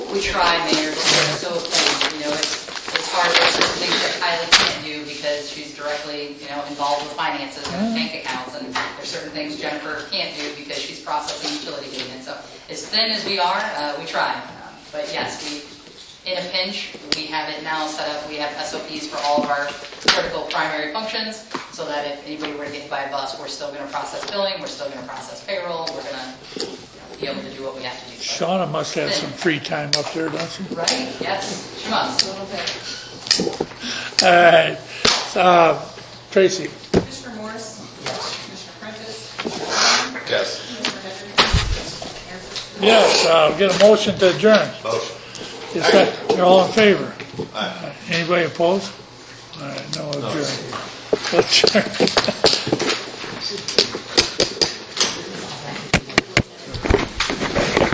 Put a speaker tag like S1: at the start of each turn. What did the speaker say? S1: we try, Mayor, but we're so, like, you know, it's, it's hard, there's certain things that Kylie can't do because she's directly, you know, involved with finances and bank accounts, and there's certain things Jennifer can't do because she's processing utility payments. So as thin as we are, uh, we try. Um, But yes, we, in a pinch, we have it now set up, we have SOPs for all of our critical primary functions, so that if anybody were to get hit by a bus, we're still gonna process billing, we're still gonna process payroll, we're gonna you know, be able to do what we have to do. But-
S2: Shauna must have some free time up there, don't she?
S1: Right, yes, she must. A little bit.
S2: All right, uh, Tracy,
S3: Commissioner Morris? Yes. Commissioner Prentice?
S4: Yes.
S3: Commissioner Henry? Mayor Fisher?
S2: yes, uh, get a motion to adjourn.
S4: Motion.
S2: Is that, you're all in favor? Anybody opposed? All right, no adjourn. Adjourn.